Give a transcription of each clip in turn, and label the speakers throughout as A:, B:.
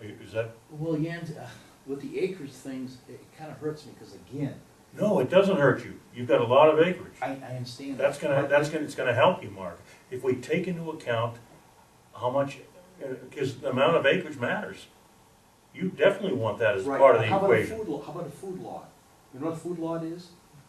A: is that,
B: Well, Jens, uh, with the acreage things, it kind of hurts me, because again,
A: no, it doesn't hurt you, you've got a lot of acreage.
B: I, I understand.
A: That's gonna,
B: But
A: that's gonna, it's gonna help you, Mark, if we take into account how much, because the amount of acreage matters. You definitely want that as
C: Right,
A: part of
C: but
A: the
C: How
A: equation.
C: about a food lot, how about a food lot? You know what a food lot is?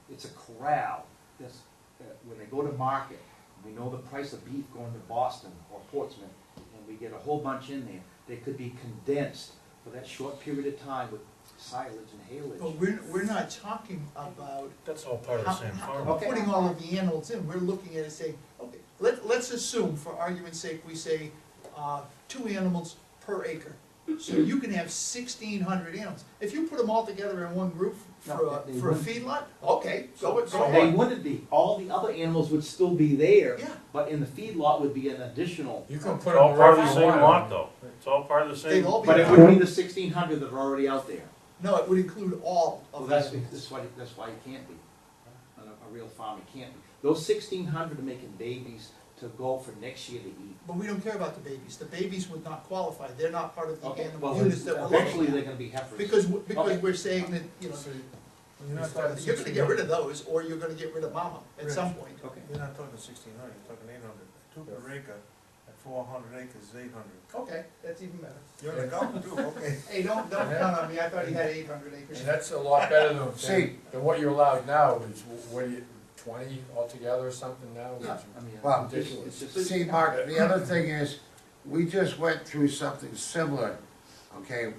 C: It's a corral, that's, uh, when they go to market, we know the price of beef going to Boston or Portsmouth, and we get a whole bunch in there, they could be condensed for that short period of time with silage and
D: But
E: Oh,
C: haylage.
D: we're, we're not talking about
A: That's all part of the
D: how-
A: same
D: how-
A: farm.
C: Okay.
D: putting all of the animals in, we're looking at it saying, okay, let, let's assume, for argument's sake, we say, uh, two animals per acre. So you can have sixteen hundred animals, if you put them all together in one group for
C: No,
D: a,
C: they
D: for a
C: wouldn't.
D: feedlot, okay, go, it- go
C: So they
D: on.
C: wouldn't be, all the other animals would still be there,
D: Yeah.
C: but in the feed lot would be an additional.
E: You can put
A: It's
E: them
A: all part of
E: wherever
A: the
E: you
A: same lot,
E: want.
A: though, it's all part of the
D: They'd
A: same.
D: all be,
C: But it
D: allowed.
C: would be the sixteen hundred that are already out there.
D: no, it would include all
C: Well,
D: of
C: that's,
D: that.
C: that's why, that's why it can't be, on a, a real farm, it can't be. Those sixteen hundred are making babies to go for next year to eat.
D: But we don't care about the babies, the babies would not qualify, they're not part of the
C: Well,
D: animal units that we're looking at.
C: Eventually, they're gonna be heifers.
D: Because, w-
C: Okay.
D: because we're saying that, you know,
E: So
D: you're
E: You're not talking
D: gonna get rid
E: sixteen
D: of those, or you're gonna get rid of mama at some
E: Right.
D: point.
C: Okay.
E: You're not talking sixteen hundred, you're talking eight hundred. Two per acre, at four hundred acres is eight hundred.
D: Okay, that's even better.
E: You're in the golf too, okay.
D: Hey, don't, don't count on me, I thought he had eight hundred acres.
F: And that's a lot better than, than, than what you're allowed now, is wh- what do you, twenty altogether or something now?
C: Yeah,
F: Which-
C: I mean,
G: Well,
C: it's just- it's just-
G: See, Mark, the other thing is, we just went through something similar, okay,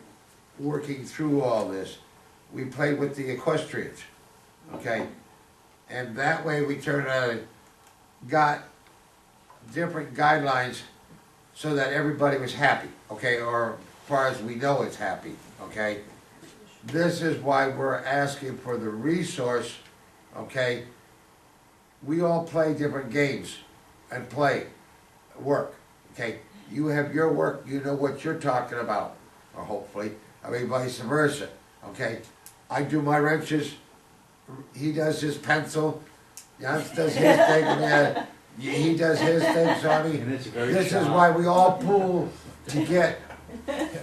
G: working through all this. We played with the equestrians, okay? And that way we turned out, got different guidelines so that everybody was happy, okay, or as far as we know it's happy, okay? This is why we're asking for the resource, okay? We all play different games and play, work, okay? You have your work, you know what you're talking about, or hopefully, I mean vice versa, okay? I do my wrenches, he does his pencil, Jans does his thing, and, uh, he does his thing, so I mean,
C: And it's very
G: this is
C: sharp.
G: why we all pool to get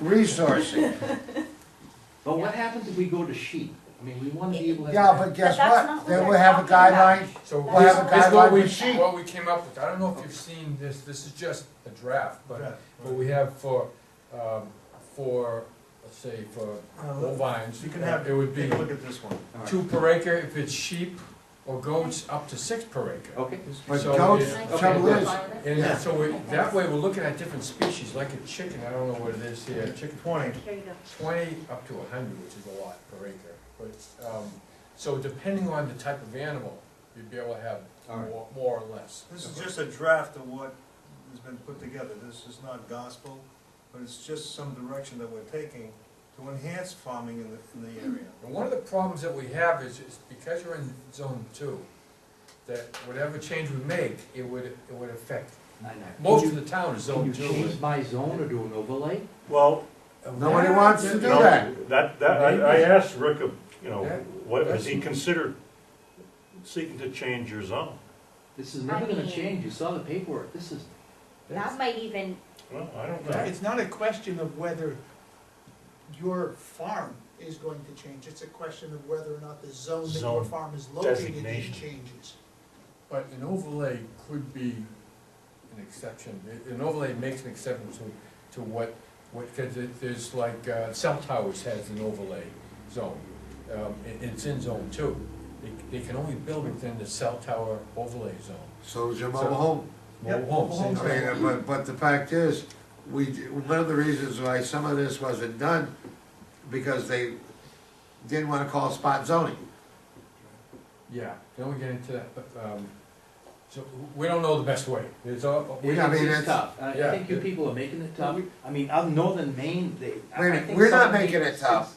G: resourcing.
C: But what happens if we go to sheep? I mean, we wanna be able to.
G: Yeah, but guess what? Then we'll have a guideline.
E: So
G: We'll have a
E: this is what
G: guideline
E: we,
G: with sheep.
E: what we came up with, I don't know if you've seen this, this is just a draft, but,
F: Draft,
E: but we have for, um, for, let's say, for
F: Uh,
E: bovines.
F: You can have,
E: It would be
F: take a look at this one.
E: two per acre if it's sheep or goats, up to six per acre.
C: Okay,
G: But
E: So
G: goats,
E: it-
G: the trouble is,
E: And so we, that way, we're looking at different species, like a chicken, I don't know what it is here, chicken.
F: Twenty.
H: There you go.
E: Twenty up to a hundred, which is a lot per acre, but, um, so depending on the type of animal, you'd be able to have
C: All right.
E: more, more or less.
F: This is just a draft of what has been put together. This is not gospel, but it's just some direction that we're taking to enhance farming in the, in the area.
E: And one of the problems that we have is, is because you're in zone two, that whatever change we make, it would, it would affect,
C: I know.
E: most of the town is
C: Can you
E: zone two.
C: change my zone or do an overlay?
A: Well,
G: nobody wants to do
A: you know,
G: that.
A: that, that, I, I asked Rick, uh, you know,
E: That-
A: what, has
E: that's-
A: he considered seeking to change your zone?
C: This is never gonna
H: mean-
C: change, you saw the paperwork, this is,
H: That might even,
A: Well, I don't know.
D: It's not a question of whether your farm is going to change, it's a question of whether or not the zone that your
A: Zone
D: farm is located in
A: designation.
D: changes.
E: But an overlay could be an exception, An- an overlay makes an exception to, to what, what, cause it, there's like, uh, cell towers has an overlay zone. Um, it, it's in zone two, they, they can only build within the cell tower overlay zone.
G: So is your mobile home.
E: Mobile homes, same
G: I
E: thing.
G: mean, uh, but, but the fact is, we, d- one of the reasons why some of this wasn't done, because they didn't wanna call spot zoning.
E: Yeah, then we get into that, but, um, so, we don't know the best way, there's all. we-
G: Yeah, I mean,
C: it's
G: it's-
C: tough. And I
E: yeah.
C: think you people are making it tough, I mean, up north in Maine, they. I-
G: Wait
C: I
G: a minute,
C: think
G: we're not
C: some
G: making
C: people-
G: it tough.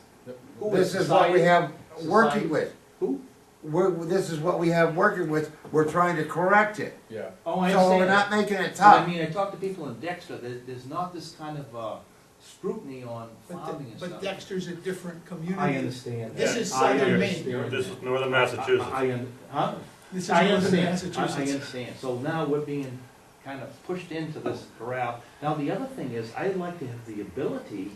C: Who
G: This is what we
C: society?
G: have
C: Society.
G: working with.
C: Who?
G: We're, this is what we have working with, we're trying to correct it.
E: Yeah,
C: Oh, I
G: So we're
C: understand.
G: not making it
C: But I
G: tough.
C: mean, I talk to people in Dexter, there, there's not this kind of, uh, scrutiny on
D: But,
C: farming
D: De-
C: and stuff.
D: but Dexter's a different
C: I
D: community.
C: understand.
D: This
C: that.
D: is
C: I
D: Southern
C: understand
A: Maine. This is
C: that.
A: northern
C: I,
A: Massachusetts.
C: I un- huh?
D: This is
C: I
D: Northern
C: understand, I, I
D: Massachusetts.
C: understand, so now we're being kind of pushed into this corral. Now, the other thing is, I'd like to have the ability